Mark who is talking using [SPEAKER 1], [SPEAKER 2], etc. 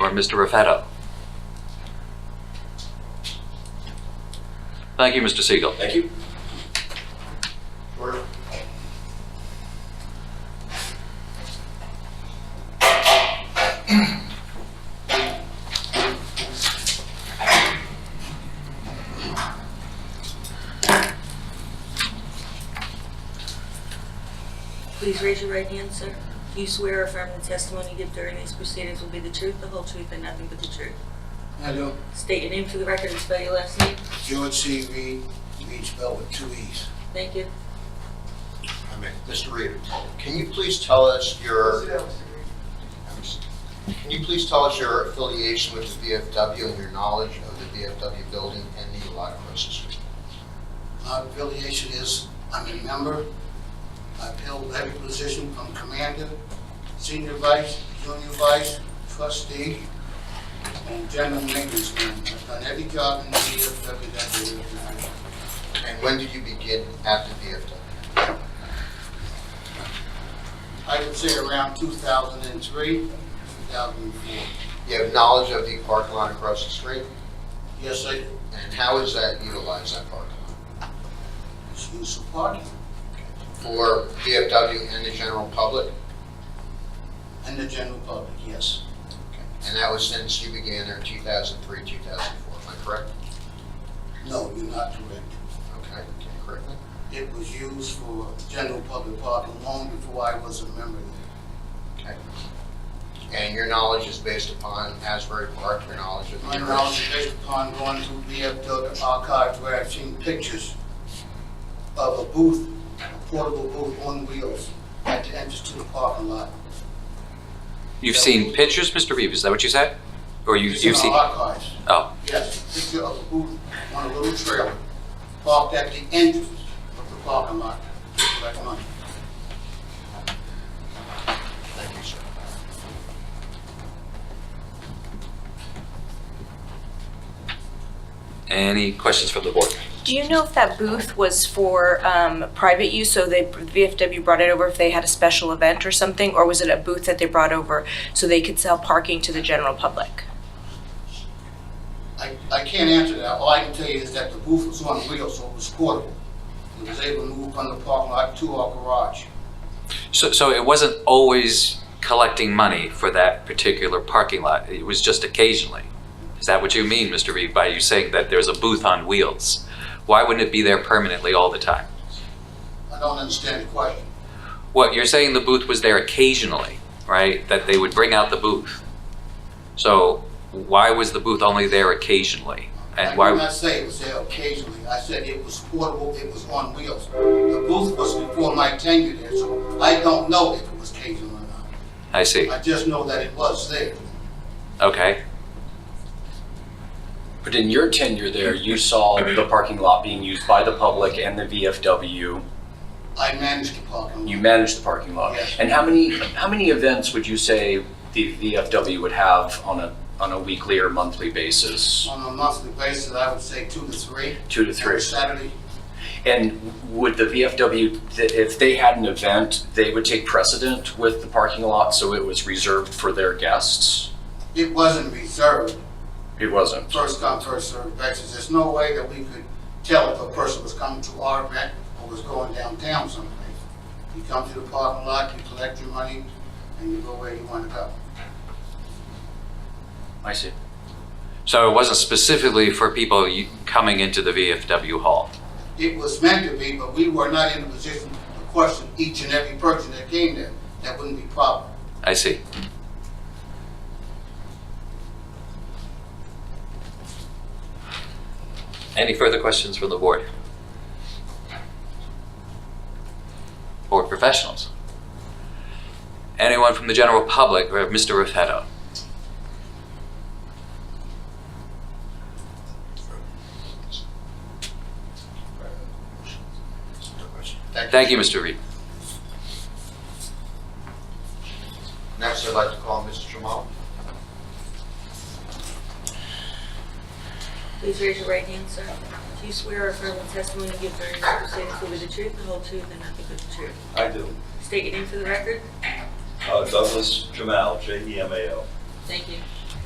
[SPEAKER 1] or Mr. Raffetto? Thank you, Mr. Siegel.
[SPEAKER 2] Thank you.
[SPEAKER 3] Please raise your right hand, sir. Do you swear or affirm the testimony you give during these proceedings will be the truth, the whole truth, and nothing but the truth?
[SPEAKER 4] Hello,
[SPEAKER 3] State your name for the record and spell your last name.
[SPEAKER 4] George C. Reed, Reed spelled with two E's.
[SPEAKER 3] Thank you.
[SPEAKER 4] I mean, Mr. Reed, can you please tell us your, can you please tell us your affiliation with the VFW and your knowledge of the VFW building and the lot across the street? My affiliation is, I'm a member. I've held every position from commander, senior vice, junior vice, trustee, and general maintenance man. I've done every job in the VFW that we have.
[SPEAKER 5] And when did you begin at the VFW?
[SPEAKER 4] I would say around 2003, 2004.
[SPEAKER 5] You have knowledge of the park lot across the street,
[SPEAKER 4] Yes, I,
[SPEAKER 5] and how is that utilized, that park lot?
[SPEAKER 4] it's used for parking
[SPEAKER 5] For VFW and the general public,
[SPEAKER 4] and the general public, yes.
[SPEAKER 5] and that was since you began there in 2003, 2004, am I correct?
[SPEAKER 4] No, you're not correct.
[SPEAKER 5] Okay, okay, correct me?
[SPEAKER 4] It was used for general public parking long before I was a member.
[SPEAKER 5] Okay. And your knowledge is based upon Asbury Park, your knowledge of.
[SPEAKER 4] My knowledge is based upon going through VFW archives where I've seen pictures of a booth, a portable booth on wheels at the entrance to the parking lot.
[SPEAKER 1] You've seen pictures, Mr. Reeve, is that what you said? Or you-
[SPEAKER 4] It's in
[SPEAKER 1] you've
[SPEAKER 4] our
[SPEAKER 1] seen,
[SPEAKER 4] Archives.
[SPEAKER 1] oh,
[SPEAKER 4] Yes, picture of a booth on a little trailer parked at the entrance of the parking lot to collect money.
[SPEAKER 5] Thank you, sir.
[SPEAKER 1] any questions from the board?
[SPEAKER 6] Do you know if that booth was for um, private use, so they, VFW brought it over if they had a special event or something? Or was it a booth that they brought over so they could sell parking to the general public?
[SPEAKER 4] I, I can't answer that. All I can tell you is that the booth was on wheels, so it was portable. It was able to move from the parking lot to our garage.
[SPEAKER 1] So, so it wasn't always collecting money for that particular parking lot, it was just occasionally? Is that what you mean, Mr. Reeve, by you saying that there's a booth on wheels? Why wouldn't it be there permanently all the time?
[SPEAKER 4] I don't understand the question.
[SPEAKER 1] Well, you're saying the booth was there occasionally, right? That they would bring out the booth. So why was the booth only there occasionally?
[SPEAKER 4] I
[SPEAKER 1] And
[SPEAKER 4] did
[SPEAKER 1] why,
[SPEAKER 4] not say it was there occasionally. I said it was portable, it was on wheels. The booth was before my tenure there, so I don't know if it was occasional or not.
[SPEAKER 1] I see,
[SPEAKER 4] I just know that it was there.
[SPEAKER 1] okay.
[SPEAKER 2] But in your tenure there, you saw the parking lot being used by the public and the VFW.
[SPEAKER 4] I managed the parking lot.
[SPEAKER 2] You managed the parking lot.
[SPEAKER 4] Yes.
[SPEAKER 2] And how many, how many events would you say the VFW would have on a, on a weekly or monthly basis?
[SPEAKER 4] On a monthly basis, I would say two to three.
[SPEAKER 2] Two to three?
[SPEAKER 4] Every Saturday,
[SPEAKER 2] And would the VFW, th- if they had an event, they would take precedent with the parking lot, so it was reserved for their guests?
[SPEAKER 4] it wasn't reserved,
[SPEAKER 2] It wasn't.
[SPEAKER 4] first come, first served basis. There's no way that we could tell if a person was coming to our event or was going downtown someplace. You come to the parking lot, you collect your money, and you go where you want to go.
[SPEAKER 2] I see.
[SPEAKER 1] So it wasn't specifically for people you- coming into the VFW hall?
[SPEAKER 4] It was meant to be, but we were not in a position to question each and every person that came there. That wouldn't be proper.
[SPEAKER 1] I see. Any further questions from the board? Board professionals? Anyone from the general public or Mr. Raffetto? Thank you, Mr. Reed.
[SPEAKER 5] Next, I'd like to call Mr. Jamal.
[SPEAKER 3] Please raise your right hand, sir. Do you swear or affirm the testimony you give during these proceedings will be the truth, the whole truth, and nothing but the truth?
[SPEAKER 7] I do.
[SPEAKER 3] State your name for the record.
[SPEAKER 7] Uh, Douglas Jamal, J-E-M-A-L.
[SPEAKER 3] Thank you.